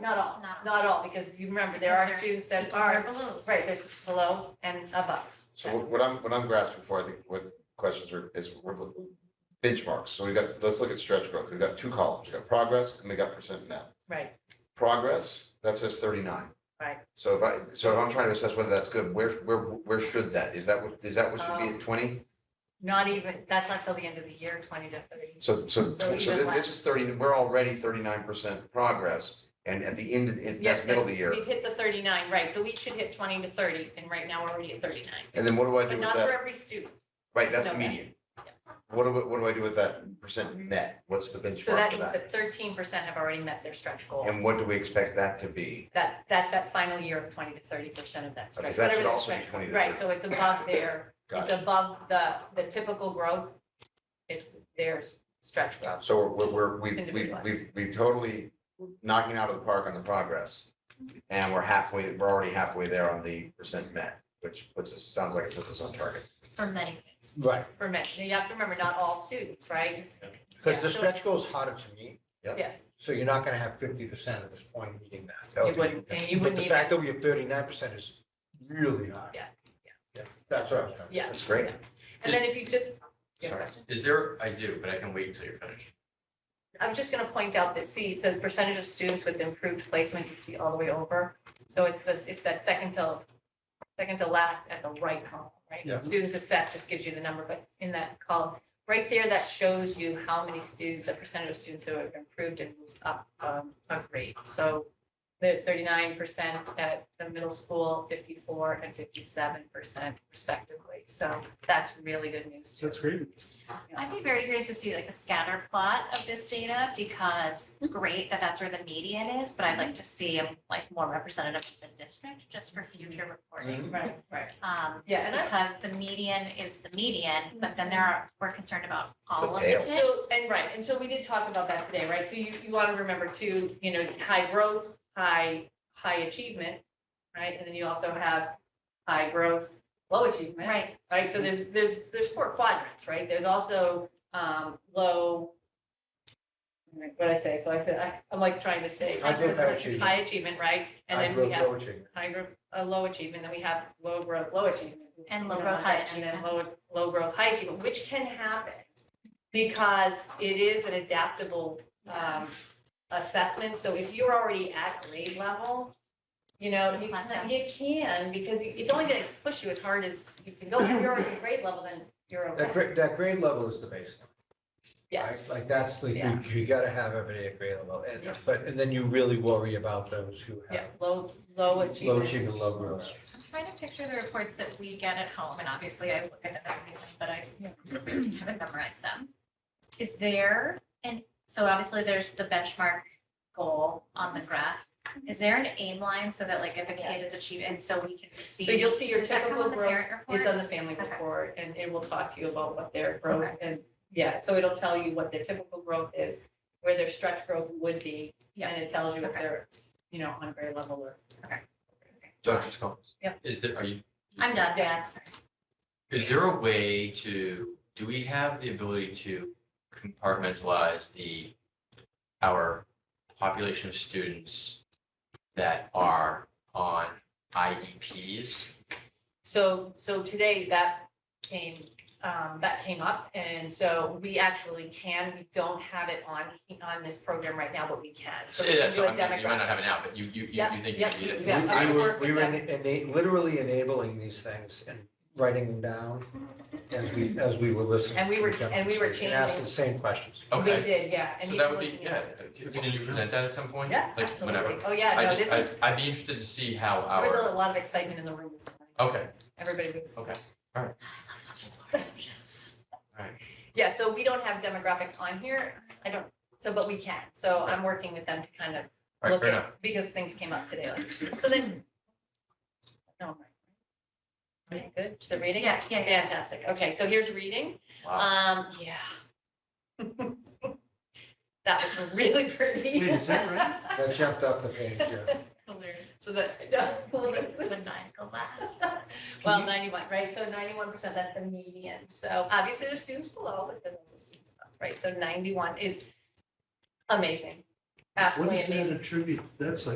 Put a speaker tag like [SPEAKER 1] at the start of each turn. [SPEAKER 1] not all,
[SPEAKER 2] Not
[SPEAKER 1] not all, because you remember, there
[SPEAKER 2] Because
[SPEAKER 1] are
[SPEAKER 2] there's
[SPEAKER 1] students that
[SPEAKER 2] people who
[SPEAKER 1] are,
[SPEAKER 2] below.
[SPEAKER 1] right, there's below and above.
[SPEAKER 3] So what- what I'm, what I'm grasping for, I think, what questions are, is we're looking- benchmarks. So we got, let's look at stretch growth. We've got two columns. We got progress and we got percent now.
[SPEAKER 1] Right,
[SPEAKER 3] Progress, that says thirty-nine.
[SPEAKER 1] right.
[SPEAKER 3] So if I, so if I'm trying to assess whether that's good, where, where, where should that? Is that what, is that what should be
[SPEAKER 1] Um,
[SPEAKER 3] at twenty?
[SPEAKER 1] Not even, that's not till the end of the year, twenty to thirty.
[SPEAKER 3] So, so,
[SPEAKER 1] so
[SPEAKER 3] so
[SPEAKER 1] even
[SPEAKER 3] thi- this
[SPEAKER 1] less.
[SPEAKER 3] is thirty, we're already thirty-nine percent progress. And at the end, of- if
[SPEAKER 1] Yes,
[SPEAKER 3] that's middle of the year.
[SPEAKER 1] We've hit the thirty-nine, right, so we should hit twenty to thirty, and right now we're already at thirty-nine,
[SPEAKER 3] And then what do I do
[SPEAKER 1] but
[SPEAKER 3] with
[SPEAKER 1] not for
[SPEAKER 3] that?
[SPEAKER 1] every student.
[SPEAKER 3] Right, that's the
[SPEAKER 1] Okay.
[SPEAKER 3] median. What do, I- what do I do with that percent net? What's the benchmark
[SPEAKER 1] So that
[SPEAKER 3] for
[SPEAKER 1] means
[SPEAKER 3] that?
[SPEAKER 1] that thirteen percent have already met their stretch goal.
[SPEAKER 3] And what do we expect that to be?
[SPEAKER 1] That, that's that final year of twenty to thirty percent of that
[SPEAKER 3] Okay,
[SPEAKER 1] stretch.
[SPEAKER 3] so that
[SPEAKER 1] whatever
[SPEAKER 3] should
[SPEAKER 1] that
[SPEAKER 3] also be
[SPEAKER 1] stretch-
[SPEAKER 3] 20 to
[SPEAKER 1] Right,
[SPEAKER 3] 30.
[SPEAKER 1] so it's above their,
[SPEAKER 3] Got
[SPEAKER 1] it's
[SPEAKER 3] it.
[SPEAKER 1] above the, the typical growth. It's their stretch growth.
[SPEAKER 3] So we're, we're,
[SPEAKER 1] It's
[SPEAKER 3] we've, we've,
[SPEAKER 1] individualized.
[SPEAKER 3] we've, we've totally knocking out of the park on the progress. And we're halfway, we're already halfway there on the percent met, which puts us, sounds like it puts us on target.
[SPEAKER 2] For many kids.
[SPEAKER 4] Right,
[SPEAKER 1] For men, you have to remember, not all students, right?
[SPEAKER 4] because
[SPEAKER 1] Yeah.
[SPEAKER 4] the stretch goal is harder to meet,
[SPEAKER 3] Yep.
[SPEAKER 1] Yes,
[SPEAKER 4] so you're not gonna have fifty percent at this point meeting that.
[SPEAKER 1] you wouldn't, and you
[SPEAKER 4] But
[SPEAKER 1] wouldn't
[SPEAKER 4] the
[SPEAKER 1] even,
[SPEAKER 4] fact that we have thirty-nine percent is really high.
[SPEAKER 1] Yeah, yeah.
[SPEAKER 4] Yeah, that's what I was trying to.
[SPEAKER 1] yeah.
[SPEAKER 3] That's great.
[SPEAKER 1] And then if you just, Yeah,
[SPEAKER 3] Sorry.
[SPEAKER 5] Is there, I do, but I can wait until you're finished.
[SPEAKER 1] I'm just gonna point out that, see, it says percentage of students with improved placement, you see all the way over. So it's this, it's that second to, second to last at the right column,
[SPEAKER 4] Yeah.
[SPEAKER 1] right? Students assessed just gives you the number, but in that column, right there, that shows you how many students, the percentage of students who have improved and moved up, um, a grade. So the thirty-nine percent at the middle school, fifty-four and fifty-seven percent respectively. So that's really good news too.
[SPEAKER 6] That's great.
[SPEAKER 2] I'd be very curious to see like a scatter plot of this data because it's great that that's where the median is, but I'd like to see um, like more representative of the district just for future reporting.
[SPEAKER 1] Right, right.
[SPEAKER 2] Um,
[SPEAKER 1] Yeah, and I,
[SPEAKER 2] because the median is the median, but then there are, we're concerned about all
[SPEAKER 3] The
[SPEAKER 2] of the
[SPEAKER 3] tails.
[SPEAKER 2] kids.
[SPEAKER 1] So, and right, and so we did talk about that today, right? So you, you want to remember too, you know, high growth, high, high achievement, right? And then you also have high growth, low achievement.
[SPEAKER 2] Right,
[SPEAKER 1] Right, so there's, there's, there's four quadrants, right? There's also, um, low. what did I say? So I said, I, I'm like trying to say.
[SPEAKER 4] High growth, high
[SPEAKER 1] achievement, High achievement, right? And
[SPEAKER 4] I
[SPEAKER 1] then we
[SPEAKER 4] wrote
[SPEAKER 1] have
[SPEAKER 4] low achievement.
[SPEAKER 1] high growth, uh, low achievement, then we have low growth, low achievement.
[SPEAKER 2] And low growth, high achievement.
[SPEAKER 1] And then low, low growth, high achievement, which can happen because it is an adaptable, um, assessment. So if you're already at grade level, you know, you
[SPEAKER 2] Plateau.
[SPEAKER 1] can, you can, because it's only gonna push you as hard as you can go. If you're already at grade level, then you're
[SPEAKER 4] That
[SPEAKER 1] okay.
[SPEAKER 4] grade, that grade level is the baseline.
[SPEAKER 1] Yes,
[SPEAKER 4] right? Like, that's the, you,
[SPEAKER 1] Yeah.
[SPEAKER 4] you gotta have everybody at grade level, and,
[SPEAKER 1] Yeah.
[SPEAKER 4] but, and then you really worry about those who
[SPEAKER 1] yeah,
[SPEAKER 4] have
[SPEAKER 1] low, low
[SPEAKER 4] low
[SPEAKER 1] achievement.
[SPEAKER 4] achievement, low growth.
[SPEAKER 2] I'm trying to picture the reports that we get at home, and obviously I look at them, every week, but I haven't memorized them. Is there, and so obviously there's the benchmark goal on the graph. Is there an aim line so that like if a kid is achieving, and so we can see?
[SPEAKER 1] So you'll see your
[SPEAKER 2] Does that come
[SPEAKER 1] typical
[SPEAKER 2] on the
[SPEAKER 1] growth.
[SPEAKER 2] parent report?
[SPEAKER 1] It's on the family
[SPEAKER 2] Okay.
[SPEAKER 1] report and it will talk to you about what their growth and, yeah, so it'll tell you what their typical growth is, where their stretch growth would be.
[SPEAKER 2] Yeah.
[SPEAKER 1] And it tells you if
[SPEAKER 2] Okay.
[SPEAKER 1] they're, you know, on a grade level or.
[SPEAKER 5] Dr. Scoggins?
[SPEAKER 1] Yep.
[SPEAKER 5] Is there, are you,
[SPEAKER 2] I'm done, yeah.
[SPEAKER 5] is there a way to, do we have the ability to compartmentalize the, our population of students that are on E IEPs?
[SPEAKER 1] So, so today that came, um, that came up, and so we actually can, we don't have it on, on this program right now, but we can. So we
[SPEAKER 5] Yeah,
[SPEAKER 1] can
[SPEAKER 5] so
[SPEAKER 1] do a
[SPEAKER 5] I mean, You might not have it
[SPEAKER 1] demographics.
[SPEAKER 5] now, but you, you, you
[SPEAKER 1] Yep,
[SPEAKER 5] you think you
[SPEAKER 1] yep,
[SPEAKER 5] need it.
[SPEAKER 1] Yeah,
[SPEAKER 4] We-
[SPEAKER 1] I
[SPEAKER 4] We
[SPEAKER 1] would
[SPEAKER 4] were,
[SPEAKER 1] work
[SPEAKER 4] we
[SPEAKER 1] with
[SPEAKER 4] were
[SPEAKER 1] that.
[SPEAKER 4] ena- literally enabling these things and writing them down as we, as we were listening.
[SPEAKER 1] And we
[SPEAKER 4] to
[SPEAKER 1] were-
[SPEAKER 4] the
[SPEAKER 1] and we were
[SPEAKER 4] demonstration, and Asked
[SPEAKER 1] changing-
[SPEAKER 4] the same questions.
[SPEAKER 1] We
[SPEAKER 5] Okay,
[SPEAKER 1] did, yeah. and
[SPEAKER 5] so
[SPEAKER 1] you
[SPEAKER 5] that
[SPEAKER 1] can
[SPEAKER 5] would
[SPEAKER 1] look
[SPEAKER 5] be,
[SPEAKER 1] in-
[SPEAKER 5] yeah, can you present that at some point?
[SPEAKER 1] Yeah,
[SPEAKER 5] Like, whenever.
[SPEAKER 1] absolutely. Oh, yeah,
[SPEAKER 5] I
[SPEAKER 1] no, this
[SPEAKER 5] just,
[SPEAKER 1] is,
[SPEAKER 5] I- I'd be interested to see how
[SPEAKER 1] there was a
[SPEAKER 5] our,
[SPEAKER 1] lot of excitement in the room this morning.
[SPEAKER 5] okay,
[SPEAKER 1] Everybody was.
[SPEAKER 5] Okay. all right.
[SPEAKER 1] Yeah, so we don't have demographics on here. I don't, so, but we can. So I'm working with them to kind of
[SPEAKER 5] All right,
[SPEAKER 1] look
[SPEAKER 5] fair enough.
[SPEAKER 1] at, because things came up today. like- So then. no, right. Okay, Good, the reading?
[SPEAKER 2] Yeah, yeah, yeah.
[SPEAKER 1] Fantastic. Okay, so here's reading. Um,
[SPEAKER 5] Wow.
[SPEAKER 1] yeah. That was really pretty.
[SPEAKER 6] Wait, is that
[SPEAKER 4] That jumped off the page, yeah.
[SPEAKER 2] Hilarious.
[SPEAKER 1] So that,
[SPEAKER 2] Would not go back.
[SPEAKER 1] well, ninety-one, right? So ninety-one percent, that's the median. So obviously there's students below, but then there's also students above, right? So ninety-one is amazing.
[SPEAKER 6] What
[SPEAKER 1] Absolutely
[SPEAKER 6] does
[SPEAKER 1] amazing.
[SPEAKER 6] that attribute? That's like